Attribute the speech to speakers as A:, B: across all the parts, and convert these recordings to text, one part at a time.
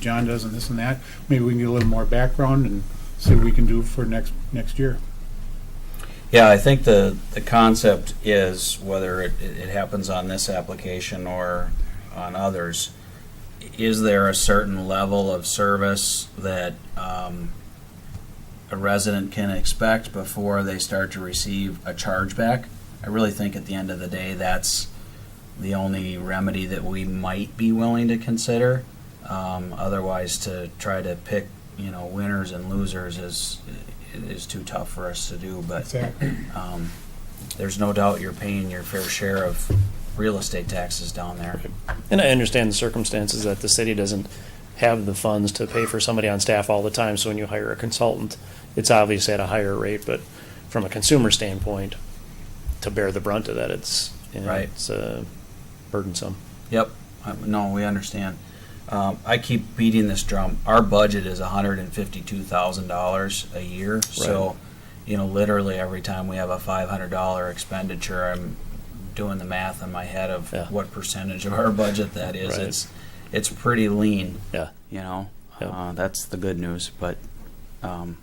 A: John does and this and that. Maybe we can get a little more background and see what we can do for next, next year.
B: Yeah, I think the, the concept is, whether it, it happens on this application or on others, is there a certain level of service that um, a resident can expect before they start to receive a chargeback? I really think at the end of the day, that's the only remedy that we might be willing to consider. Um, Otherwise, to try to pick, you know, winners and losers is, is too tough for us to do, but
A: Exactly.
B: um, there's no doubt you're paying your fair share of real estate taxes down there.
C: And I understand the circumstances that the city doesn't have the funds to pay for somebody on staff all the time, so when you hire a consultant, it's obviously at a higher rate, but from a consumer standpoint, to bear the brunt of that, it's, you know,
B: Right.
C: it's uh, burdensome.
B: Yep, Uh, no, we understand. Um, I keep beating this drum. Our budget is hundred and fifty-two thousand dollars a year, so, you know, literally every time we have a five hundred dollar expenditure, I'm doing the math in my head of
C: Yeah.
B: what percentage of our budget that is.
C: Right.
B: It's, it's pretty lean.
C: Yeah.
B: You know,
C: Yep.
B: uh, that's the good news, but, um,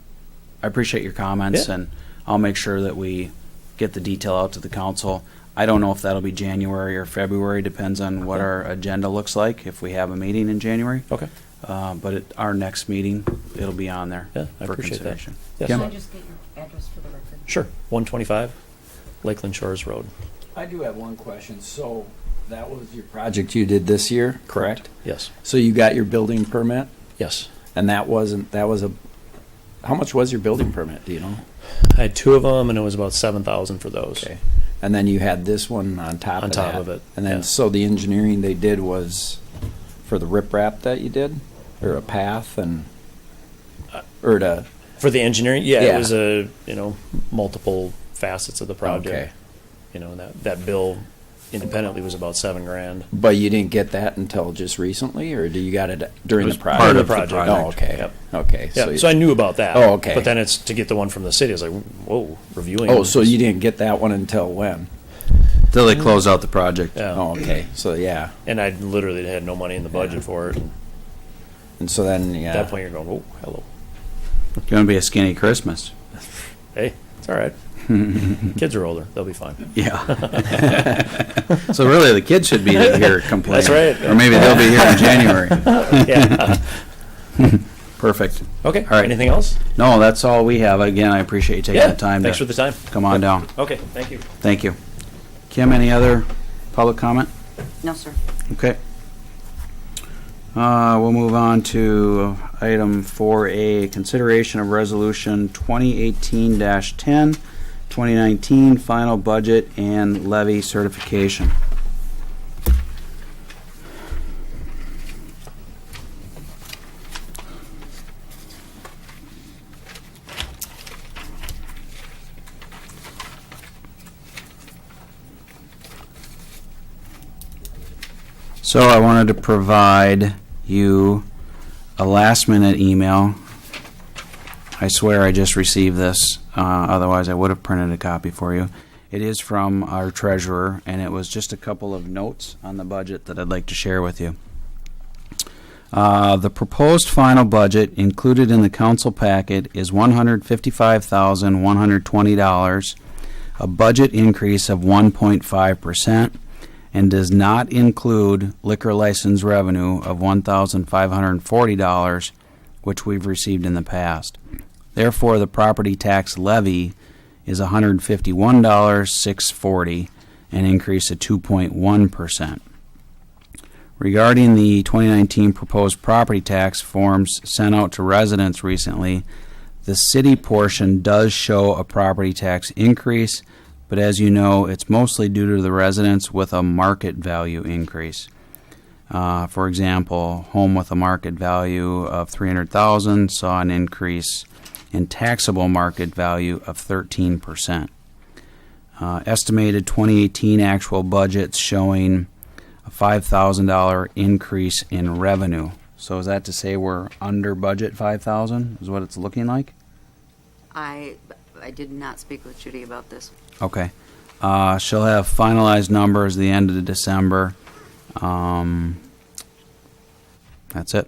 B: I appreciate your comments
C: Yeah.
B: and I'll make sure that we get the detail out to the council. I don't know if that'll be January or February, depends on what
C: Okay.
B: our agenda looks like, if we have a meeting in January.
C: Okay.
B: Uh, but at our next meeting, it'll be on there.
C: Yeah, I
B: for
C: appreciate that.
B: consideration.
C: Yes.
B: Kim?
D: Can I just get your address for the record?
C: Sure, 125 Lakeland Shores Road.
E: I do have one question. So that was your project you did this year, correct?
C: Yes,
E: So you got your building permit
C: yes.
E: and that wasn't, that was a, how much was your building permit, do you know?
C: I had two of them, and it was about 7,000 for those.
E: Okay. And then you had this one on top
C: On
E: of that.
C: top of it,
E: And
C: yeah.
E: then, so the engineering they did was for the riprap that you did? Or a path and, or to,
C: For the engineering, yeah, it
E: Yeah.
C: was a, you know, multiple facets of the project.
E: Okay.
C: You know, and that, that bill independently was about seven grand.
E: but you didn't get that until just recently or do you got it during
C: It was
E: the
C: part
E: project?
C: of the project.
E: Oh, okay,
C: Yep.
E: okay.
C: Yeah,
E: you-
C: so I knew about that.
E: Oh, okay.
C: But then it's to get the one from the city. I was like, whoa, reviewing.
E: Oh, so you didn't get that one until when?
F: Till they close out the project.
C: Yeah.
E: Oh, okay, so yeah.
C: And I literally had no money in the budget for it. And
E: And so then, yeah.
C: At that point, you're going, oh, hello.
B: It's gonna be a skinny Christmas.
C: Hey, it's all right. Kids are older. They'll be fine.
B: Yeah.
F: So really, the kids should be here complaining.
C: That's right.
F: Or maybe they'll be here in January.
C: Yeah.
B: Perfect.
C: Okay.
B: right.
C: Anything else?
B: No, that's all we have. Again, I appreciate you taking
C: yeah.
B: the time
C: Thanks for
B: to
C: the time.
B: come on down.
C: Okay. Thank you.
B: Thank you. Kim, any other public comment?
D: No, sir.
B: Okay. Uh, we'll move on to item four A, consideration of resolution twenty eighteen 10 2019 final budget and levy certification. So I wanted to provide you a last minute email. I swear I just received this, uh, otherwise I would have printed a copy for you. It is from our treasurer, and it was just a couple of notes on the budget that I'd like to share with you. Uh, the proposed final budget included in the council packet is one hundred fifty-five thousand, one hundred twenty dollars, a budget increase of one point five percent and does not include liquor license revenue of $1,540, which we've received in the past. Therefore, the property tax levy is $151,640, an increase of 2.1%. Regarding the 2019 proposed property tax forms sent out to residents recently, the city portion does show a property tax increase, but as you know, it's mostly due to the residents with a market value increase. Uh, for example, home with a market value of 300,000 saw an increase in taxable market value of 13%. Uh, estimated 2018 actual budgets showing a $5,000 increase in revenue. So is that to say we're under budget 5,000 is what it's looking like?
D: I, I did not speak with Judy about this.
B: Okay. Uh, she'll have finalized numbers the end of December. Um, that's it.